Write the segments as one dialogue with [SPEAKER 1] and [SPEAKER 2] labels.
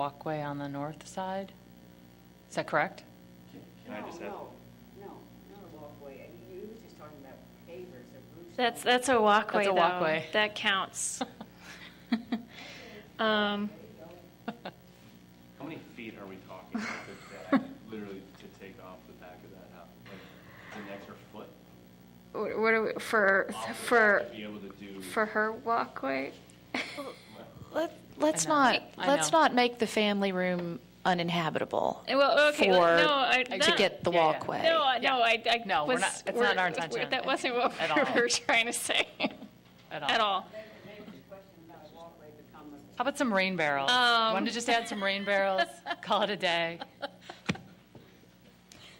[SPEAKER 1] walkway on the north side? Is that correct?
[SPEAKER 2] Can I just have?
[SPEAKER 3] No, not a walkway. You were just talking about pavers or roofs.
[SPEAKER 4] That's, that's a walkway,
[SPEAKER 1] That's a
[SPEAKER 4] though.
[SPEAKER 1] walkway.
[SPEAKER 4] That counts. Um,
[SPEAKER 2] How many feet are we talking about that that literally could take off the back of that house? Like, it's an extra foot?
[SPEAKER 4] wh- What are, we- for,
[SPEAKER 2] off the back
[SPEAKER 4] for,
[SPEAKER 2] To be able to do.
[SPEAKER 4] for her walkway?
[SPEAKER 5] Let, let's
[SPEAKER 1] know.
[SPEAKER 5] not,
[SPEAKER 1] I
[SPEAKER 5] let's
[SPEAKER 1] know.
[SPEAKER 5] not make the family room uninhabitable
[SPEAKER 4] Eh, Well, okay, no, I.
[SPEAKER 5] for, to
[SPEAKER 4] that-
[SPEAKER 5] get the
[SPEAKER 1] Yeah, yeah.
[SPEAKER 5] walkway.
[SPEAKER 4] No, I-
[SPEAKER 1] Yeah.
[SPEAKER 4] no, I, I.
[SPEAKER 1] No, we're
[SPEAKER 4] was-
[SPEAKER 1] not- it's
[SPEAKER 4] we're-
[SPEAKER 1] not our
[SPEAKER 4] we're-
[SPEAKER 1] intention
[SPEAKER 4] That wasn't what
[SPEAKER 1] at
[SPEAKER 4] we
[SPEAKER 1] all.
[SPEAKER 4] were trying to say at all.
[SPEAKER 3] Maybe this question about a walkway become a
[SPEAKER 1] How about some rain barrels?
[SPEAKER 4] Um.
[SPEAKER 1] Want to just add some rain barrels? Call it a day.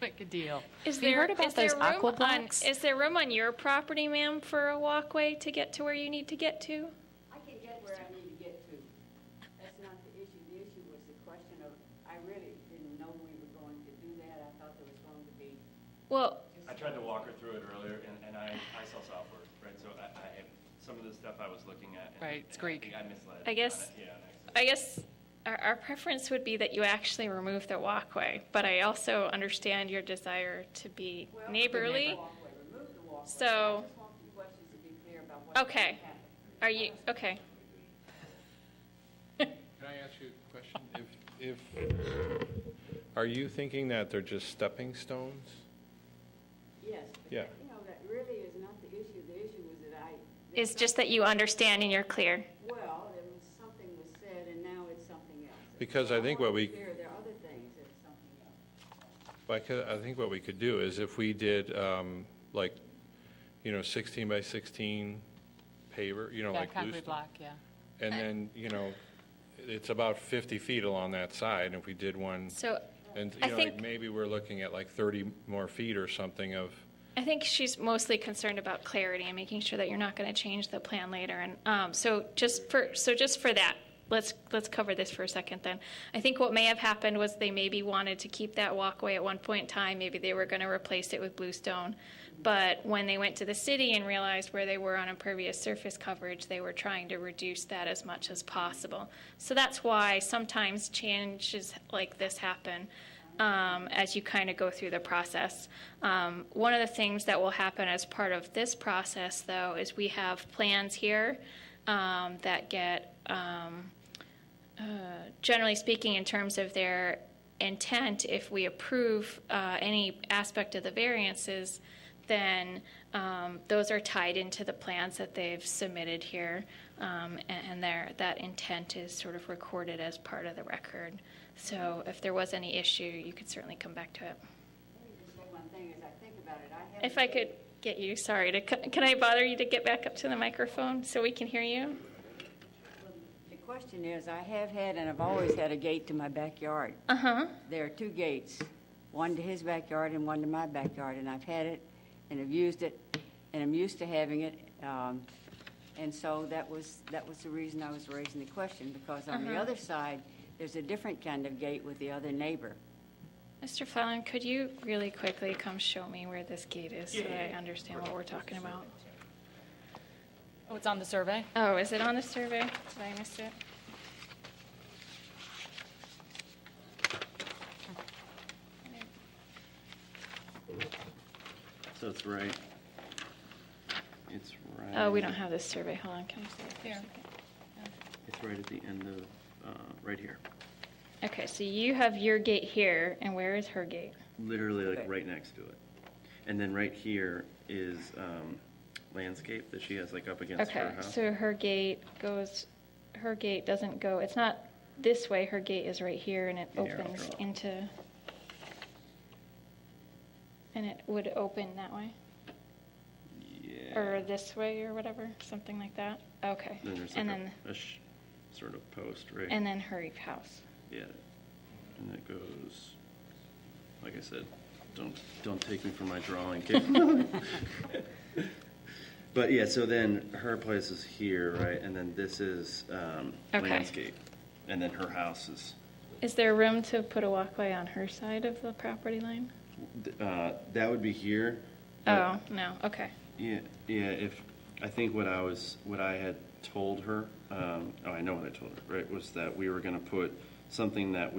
[SPEAKER 1] Make a deal.
[SPEAKER 4] Is
[SPEAKER 5] you
[SPEAKER 4] there,
[SPEAKER 5] heard about
[SPEAKER 4] is there
[SPEAKER 5] those
[SPEAKER 4] room
[SPEAKER 5] aqua
[SPEAKER 4] on,
[SPEAKER 5] blocks?
[SPEAKER 4] is there room on your property, ma'am, for a walkway to get to where you need to get to?
[SPEAKER 3] I can get where I need to get to. That's not the issue. The issue was the question of, I really didn't know we were going to do that. I thought there was going to be,
[SPEAKER 4] Well,
[SPEAKER 2] I tried to walk her through it earlier, and, and I, I sell software, right? So I, I, some of the stuff I was looking at. and-
[SPEAKER 1] Right, it's
[SPEAKER 2] and I
[SPEAKER 1] Greek.
[SPEAKER 2] think I misled.
[SPEAKER 4] I guess-
[SPEAKER 2] on it, Yeah. on accident.
[SPEAKER 4] I guess our, our preference would be that you actually remove the walkway, but I also understand your desire to be
[SPEAKER 3] well.
[SPEAKER 4] neighborly.
[SPEAKER 3] Walkway, remove the walkway.
[SPEAKER 4] So-
[SPEAKER 3] I just want the questions to be clear about what.
[SPEAKER 4] Okay. Are you, okay.
[SPEAKER 6] Can I ask you a question? If, if, are you thinking that they're just stepping stones?
[SPEAKER 3] Yes. but
[SPEAKER 6] Yeah.
[SPEAKER 3] that- You know, that really is not the issue. The issue was that I.
[SPEAKER 4] It's just that you understand and you're clear.
[SPEAKER 3] Well, there was something was said and now it's something else.
[SPEAKER 6] Because I think
[SPEAKER 3] want
[SPEAKER 6] what
[SPEAKER 3] to
[SPEAKER 6] we-
[SPEAKER 3] be clear, There are other things that's something else.
[SPEAKER 6] Like, uh, I think what we could do is if we did, um, like, you know, 16 by 16 paver, you know,
[SPEAKER 1] Yeah,
[SPEAKER 6] like loose.
[SPEAKER 1] concrete block, yeah.
[SPEAKER 6] And then, you know, it's about 50 feet along that side, and if we did one,
[SPEAKER 4] So
[SPEAKER 6] and,
[SPEAKER 4] I
[SPEAKER 6] you know, like,
[SPEAKER 4] think-
[SPEAKER 6] maybe we're looking at like 30 more feet or something of,
[SPEAKER 4] I think she's mostly concerned about clarity and making sure that you're not going to change the plan later. And um, so just for so just for that, let's let's cover this for a second. Then I think what may have happened was they maybe wanted to keep that walkway at one point in time. Maybe they were going to replace it with bluestone, but when they went to the city and realized where they were on impervious surface coverage, they were trying to reduce that as much as possible. So that's why sometimes changes like this happen um, as you kind of go through the process. Um, one of the things that will happen as part of this process, though, is we have plans here um, that get, um, uh, generally speaking, in terms of their intent, if we approve uh, any aspect of the variances, then um, those are tied into the plans that they've submitted here, um, and, and their, that intent is sort of recorded as part of the record. So if there was any issue, you could certainly come back to it.
[SPEAKER 3] Let me just say one thing, as I think about it, I have.
[SPEAKER 4] If I could get you, sorry, to, c- can I bother you to get back up to the microphone so we can hear you?
[SPEAKER 3] The question is, I have had and I've always had a gate to my backyard.
[SPEAKER 4] Uh-huh.
[SPEAKER 3] There are two gates, one to his backyard and one to my backyard, and I've had it, and I've used it, and I'm used to having it. um, And so that was, that was the reason I was raising the question, because on
[SPEAKER 4] Uh-huh.
[SPEAKER 3] the other side, there's a different kind of gate with the other neighbor.
[SPEAKER 4] Mr. Fallon, could you really quickly come show me where this gate is so that I understand what we're talking about?
[SPEAKER 1] Oh, it's on the survey?
[SPEAKER 4] Oh, is it on the survey? Did I miss it?
[SPEAKER 7] So it's right. It's right.
[SPEAKER 4] Oh, we don't have this survey. Hold on, can I see it for a
[SPEAKER 1] Here.
[SPEAKER 4] second?
[SPEAKER 7] It's right at the end of, uh, right here.
[SPEAKER 4] Okay, so you have your gate here, and where is her gate?
[SPEAKER 7] Literally like
[SPEAKER 3] Okay.
[SPEAKER 7] right next to it. And then right here is um, landscape that she has like up against her
[SPEAKER 4] Okay,
[SPEAKER 7] house.
[SPEAKER 4] so her gate goes, her gate doesn't go, it's not this way, her gate is right here and it
[SPEAKER 7] Here, I'll
[SPEAKER 4] opens
[SPEAKER 7] draw.
[SPEAKER 4] into, and it would open that way,
[SPEAKER 7] Yeah.
[SPEAKER 4] or this way or whatever, something like that? Okay.
[SPEAKER 7] Then there's like
[SPEAKER 4] And
[SPEAKER 7] a,
[SPEAKER 4] then,
[SPEAKER 7] a sh- sort of post right.
[SPEAKER 4] and then her house.
[SPEAKER 7] Yeah. And it goes, like I said, don't, don't take me for my drawing capability. But yeah, so then her place is here, right? And then this is um,
[SPEAKER 4] Okay.
[SPEAKER 7] landscape. And then her house is,
[SPEAKER 4] Is there room to put a walkway on her side of the property line?
[SPEAKER 7] uh, that would be here.
[SPEAKER 4] Oh, no, okay.
[SPEAKER 7] Yeah, yeah, if, I think what I was, what I had told her, um, oh, I know what I told her, right, was that we were gonna put something that we.